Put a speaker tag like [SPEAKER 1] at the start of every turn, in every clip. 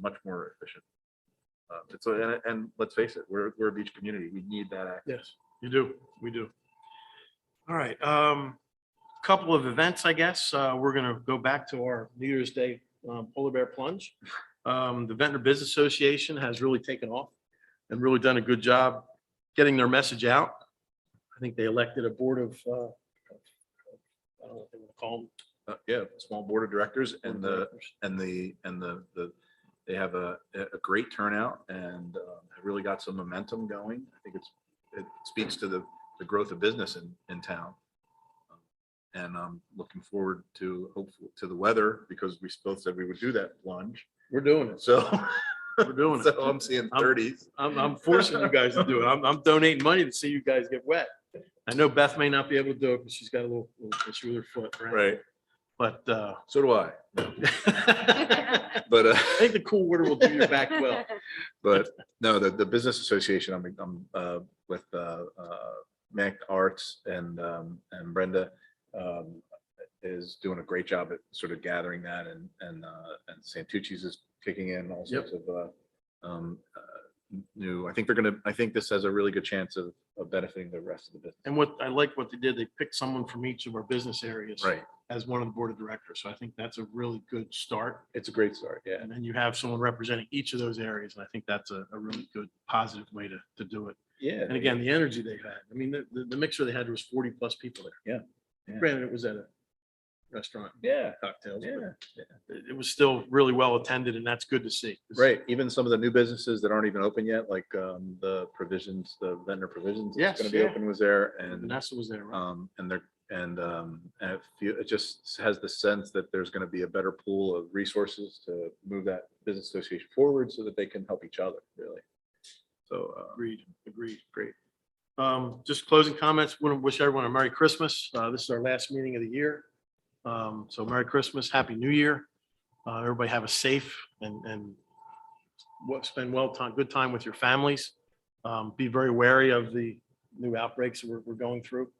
[SPEAKER 1] much more efficient. Uh, It's, a- and, and let's face it, we're, we're a beach community. We need that. act.
[SPEAKER 2] Yes, you do. We do. All right, um, couple of events, I guess. Uh, we're gonna go back to our New Year's Day um, Polar Bear Plunge. Um, the Ventnor Business Association has really taken off and really done a good job getting their message out. I think they elected a board of, uh, I don't know what they would call them.
[SPEAKER 1] Uh, Yeah, small board of directors and the,
[SPEAKER 2] directors.
[SPEAKER 1] and the, and the, the, they have a, a great turnout and um, have really got some momentum going. I think it's, it speaks to the, the growth of business in, in town. And I'm looking forward to, hopefully, to the weather because we both said we would do that plunge.
[SPEAKER 2] We're doing it.
[SPEAKER 1] So,
[SPEAKER 2] We're doing it.
[SPEAKER 1] so um, I'm seeing
[SPEAKER 2] I'm-
[SPEAKER 1] thirties.
[SPEAKER 2] I'm, I'm forcing you guys to do it. I'm, I'm donating money to see you guys get wet. I know Beth may not be able to do it, because she's got a little, little issue with her foot, right?
[SPEAKER 1] Right.
[SPEAKER 2] But, uh,
[SPEAKER 1] So do I.
[SPEAKER 2] I
[SPEAKER 1] But, uh,
[SPEAKER 2] think the cool water will do your back well.
[SPEAKER 1] but no, the, the business association, I'm, I'm, uh, with, uh, uh, Mac Arts and, um, and Brenda, um, is doing a great job at sort of gathering that and, and, uh, and Santucci's is kicking in all
[SPEAKER 2] Yep.
[SPEAKER 1] sorts of, uh, um, uh, new, I think they're gonna, I think this has a really good chance of, of benefiting the rest of the business.
[SPEAKER 2] And what, I like what they did, they picked someone from each of our business areas
[SPEAKER 1] Right.
[SPEAKER 2] as one of the board of directors. So I think that's a really good start.
[SPEAKER 1] It's a great start. Yeah.
[SPEAKER 2] And then you have someone representing each of those areas, and I think that's a, a really good, positive way to, to do it.
[SPEAKER 1] Yeah.
[SPEAKER 2] And again, the energy they had, I mean, the, the the mixer they had was forty plus people there.
[SPEAKER 1] Yeah.
[SPEAKER 2] Granted, it was at a restaurant,
[SPEAKER 1] Yeah.
[SPEAKER 2] cocktails,
[SPEAKER 1] Yeah.
[SPEAKER 2] but it, it was still really well attended and that's good to see.
[SPEAKER 1] Right, even some of the new businesses that aren't even open yet, like um, the provisions, the vendor provisions that's
[SPEAKER 2] Yes,
[SPEAKER 1] going to be
[SPEAKER 2] yeah.
[SPEAKER 1] open was there and,
[SPEAKER 2] Vanessa was there, right?
[SPEAKER 1] um, and they're, and um, and it feel- it just has the sense that there's going to be a better pool of resources to move that business association forward so that they can help each other, really. So, uh,
[SPEAKER 2] Agreed, agreed.
[SPEAKER 1] Great.
[SPEAKER 2] Um, just closing comments, want to wish everyone a Merry Christmas. Uh, this is our last meeting of the year. Um, so Merry Christmas, Happy New Year. Uh, everybody have a safe and, and what, spend well time, good time with your families. Um, be very wary of the new outbreaks we're, we're going through.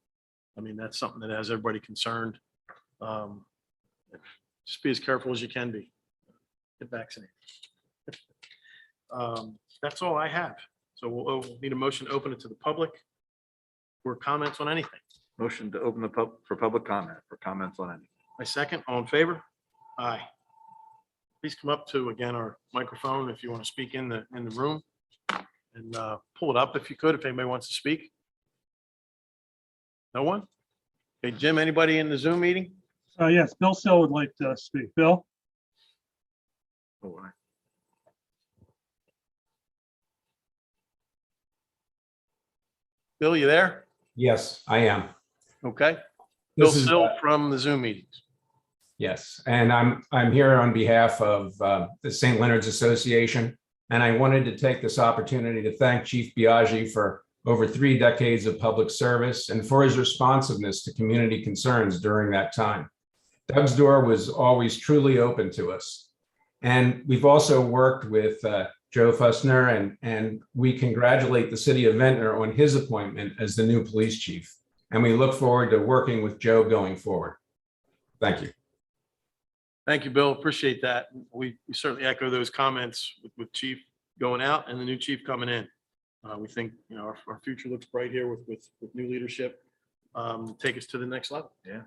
[SPEAKER 2] I mean, that's something that has everybody concerned. Um, just be as careful as you can be. Get vaccinated. Um, that's all I have. So we'll o- need a motion to open it to the public for comments on anything.
[SPEAKER 1] motion to open the pub, for public comment, for comments on any.
[SPEAKER 2] My second, all in favor? Aye. Please come up to, again, our microphone if you want to speak in the, in the room. And uh, pull it up if you could, if anybody wants to speak. No one? Hey, Jim, anybody in the Zoom meeting?
[SPEAKER 3] Uh, yes, Bill Sill would like to speak. Bill?
[SPEAKER 1] Oh, I-
[SPEAKER 2] Bill, you there?
[SPEAKER 4] Yes, I am.
[SPEAKER 2] Okay. Bill
[SPEAKER 4] This is,
[SPEAKER 2] Sill from the Zoom meetings.
[SPEAKER 4] yes, and I'm, I'm here on behalf of uh, the St. Leonard's Association. And I wanted to take this opportunity to thank Chief Biagi for over three decades of public service and for his responsiveness to community concerns during that time. Doug's door was always truly open to us. And we've also worked with uh, Joe Fussner and, and we congratulate the city of Ventnor on his appointment as the new police chief. And we look forward to working with Joe going forward. Thank you.
[SPEAKER 2] Thank you, Bill. Appreciate that. We we certainly echo those comments with- with chief going out and the new chief coming in. Uh, We think, you know, our, our future looks bright here with, with, with new leadership. Um, Take us to the next level.
[SPEAKER 1] Yeah.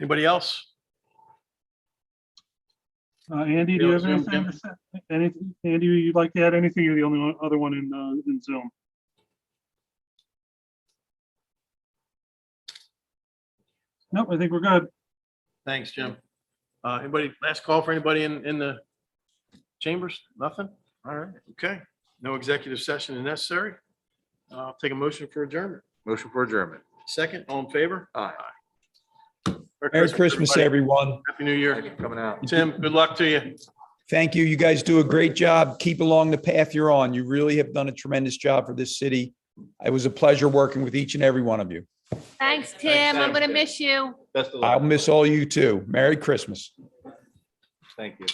[SPEAKER 2] Anybody else?
[SPEAKER 3] Uh, Andy, do
[SPEAKER 2] Bill,
[SPEAKER 3] you have
[SPEAKER 2] Zoom,
[SPEAKER 3] anything
[SPEAKER 2] Jim.
[SPEAKER 3] to say? Anything, Andy, you'd like to add anything? You're the only one, other one in, uh, in Zoom. Nope, I think we're good.
[SPEAKER 2] Thanks, Jim. Uh, Anybody, last call for anybody in, in the chambers? Nothing? All right, okay. No executive session is necessary. Uh, I'll take a motion for adjournment.
[SPEAKER 1] Motion for adjournment.
[SPEAKER 2] Second, all in favor?
[SPEAKER 1] Aye.
[SPEAKER 5] Merry Christmas,
[SPEAKER 2] everybody.
[SPEAKER 5] everyone.
[SPEAKER 2] Happy New
[SPEAKER 1] Thank you
[SPEAKER 2] Year.
[SPEAKER 1] for coming out.
[SPEAKER 2] Tim, good luck to you.
[SPEAKER 5] Thank you. You guys do a great job. Keep along the path you're on. You really have done a tremendous job for this city. It was a pleasure working with each and every one of you.
[SPEAKER 6] Thanks, Tim. I'm gonna miss you.
[SPEAKER 1] Best of luck.
[SPEAKER 5] I'll miss all you too. Merry Christmas.
[SPEAKER 1] Thank you.